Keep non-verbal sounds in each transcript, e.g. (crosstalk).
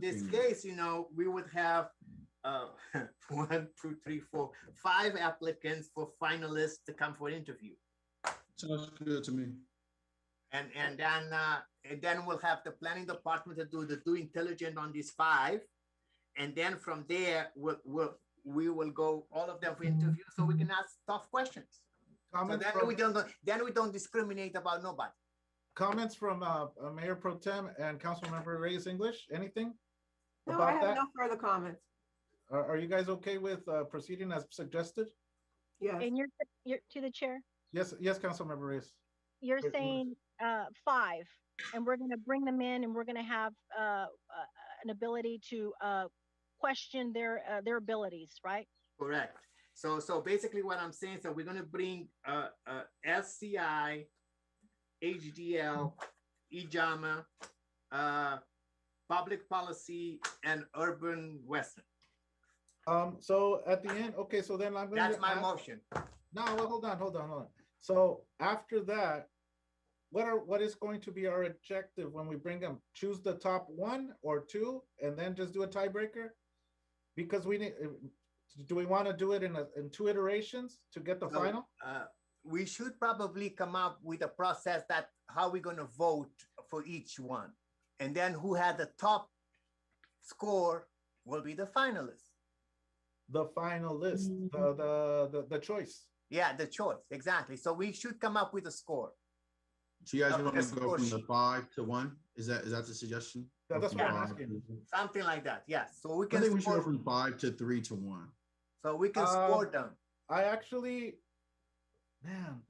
this case, you know, we would have uh, (laughs) one, two, three, four, five applicants for finalists to come for interview. Sounds good to me. And, and then, uh, and then we'll have the planning department to do the due intelligence on these five. And then from there, we'll, we'll, we will go all of them for interview, so we can ask tough questions. So Comments then we from, don't, then we don't discriminate about nobody. comments from, uh, uh, Mayor Pro Tem and Councilmember Reyes English, anything? No, I About have that, no further comments. are, are you guys okay with, uh, proceeding as suggested? Yes, And you're, you're to the chair, Yes, yes, Councilmember Reyes. you're Yes, ma'am. saying uh, five, and we're going to bring them in and we're going to have uh, uh, an ability to uh, question their, uh, their abilities, right? Correct. So, so basically what I'm saying, so we're gonna bring, uh, uh, SCI, HDL, E EJAMA, uh, public policy and urban western. Um, so at the end, okay, so then I'm gonna. That's my ask- motion. No, well, hold on, hold on, hold on. So after that, what are, what is going to be our objective when we bring them? Choose the top one or two and then just do a tiebreaker? Because we need, do we want to do it in a, in two iterations to get the No. final? Uh, we should probably come up with a process that how we're gonna vote for each one. And then who had the top score will be the finalist. The final list, the, the, the, the choice. Yeah, the choice, exactly. So we should come up with a score. So you guys Uh, want me yes, to of go from course. the five to one? Is that, is that the suggestion? That- That's what I'm Five asking. to- Something like that, yes. So we I think can we should go score, from five to three to one. so we can Um, score them. I actually, man,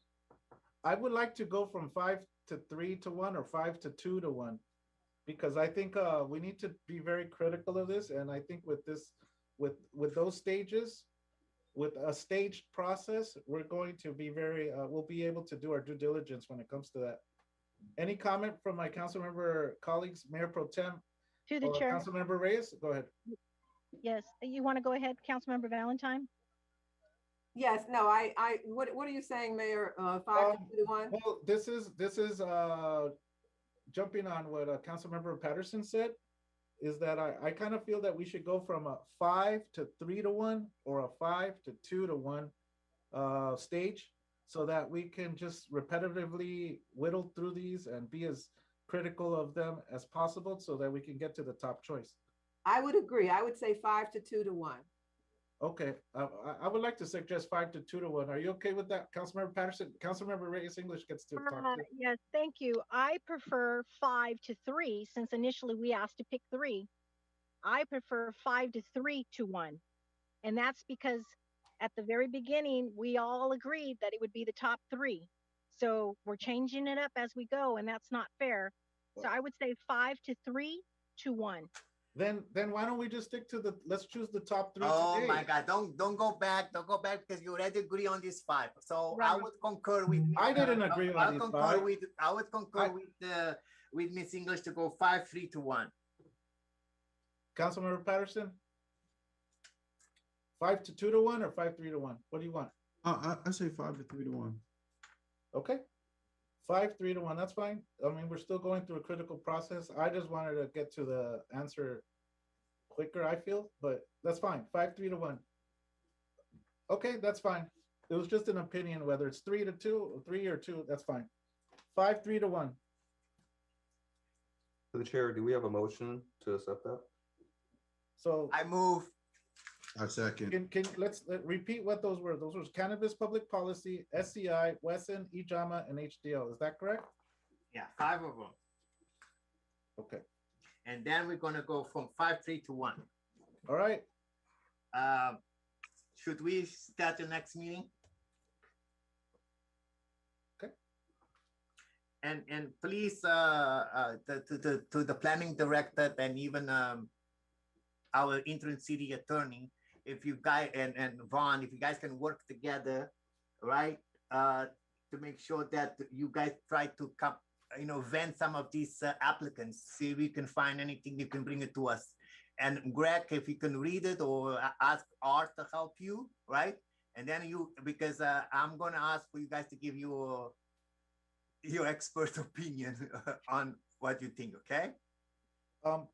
I would like to go from five to three to one or five to two to one. Because I think uh, we need to be very critical of this, and I think with this, with with those stages, with a staged process, we're going to be very, uh, we'll be able to do our due diligence when it comes to that. Any comment from my council member colleagues, Mayor Pro Tem, To the or chair, Uh, council member Reyes? Go ahead. yes. You want to go ahead, Councilmember Valentine? yes, no, I, I, what, what are you saying, Mayor? Uh, Five to Um, two to one? Well, this is, this is, uh, jumping on what, uh, Councilmember Patterson said, is that I, I kind of feel that we should go from a five to three to one or a five to two to one, uh, stage, so that we can just repetitively whittle through these and be as critical of them as possible so that we can get to the top choice. I would agree. I would say five to two to one. Okay, I, I- I would like to suggest five to two to one. Are you okay with that, Councilmember Patterson? Councilmember Reyes English gets to talk Uh, to. Yes, thank you. I prefer five to three, since initially we asked to pick three. I prefer five to three to one. And that's because at the very beginning, we all agreed that it would be the top three. So we're changing it up as we go, and that's not fair. So I would say five to three to one. Then, then why don't we just stick to the, let's choose the top three Oh today. my God! Don't don't go back. Don't go back because you already agree on these five. So I Right. would concur with. I didn't agree I- on I these concur five. With, I would concur I- with uh, with Miss English to go five, three to one. Councilmember Patterson? Five to two to one or five, three to one? What do you want? Uh, I, I, I say five to three to one. Okay. Five, three to one, that's fine. I mean, we're still going through a critical process. I just wanted to get to the answer quicker, I feel, but that's fine. Five, three to one. Okay, that's fine. It was just an opinion, whether it's three to two, or three or two, that's fine. Five, three to one. To the chair, do we have a motion to accept that? So. I move. I second. Can, can, let's let- repeat what those were. Those were cannabis public policy, SCI, Wesson, E EJAMA, and HDL. Is that correct? Yeah, five of them, Okay, and then we're gonna go from five, three to one. all right. Um, should we start the next meeting? Okay. And, and please, uh, uh, to, to, the to the planning director and even, um, our interim city attorney, if you guys, and, and Vaughn, if you guys can work together, right? Uh, to make sure that you guys try to come, you know, vent some of these uh, applicants, see if you can find anything, you can bring it to us. And Greg, if you can read it or a- ask Art to help you, right? And then you, because uh, I'm gonna ask for you guys to give your, (laughs) your expert opinion on what you think, okay? Um,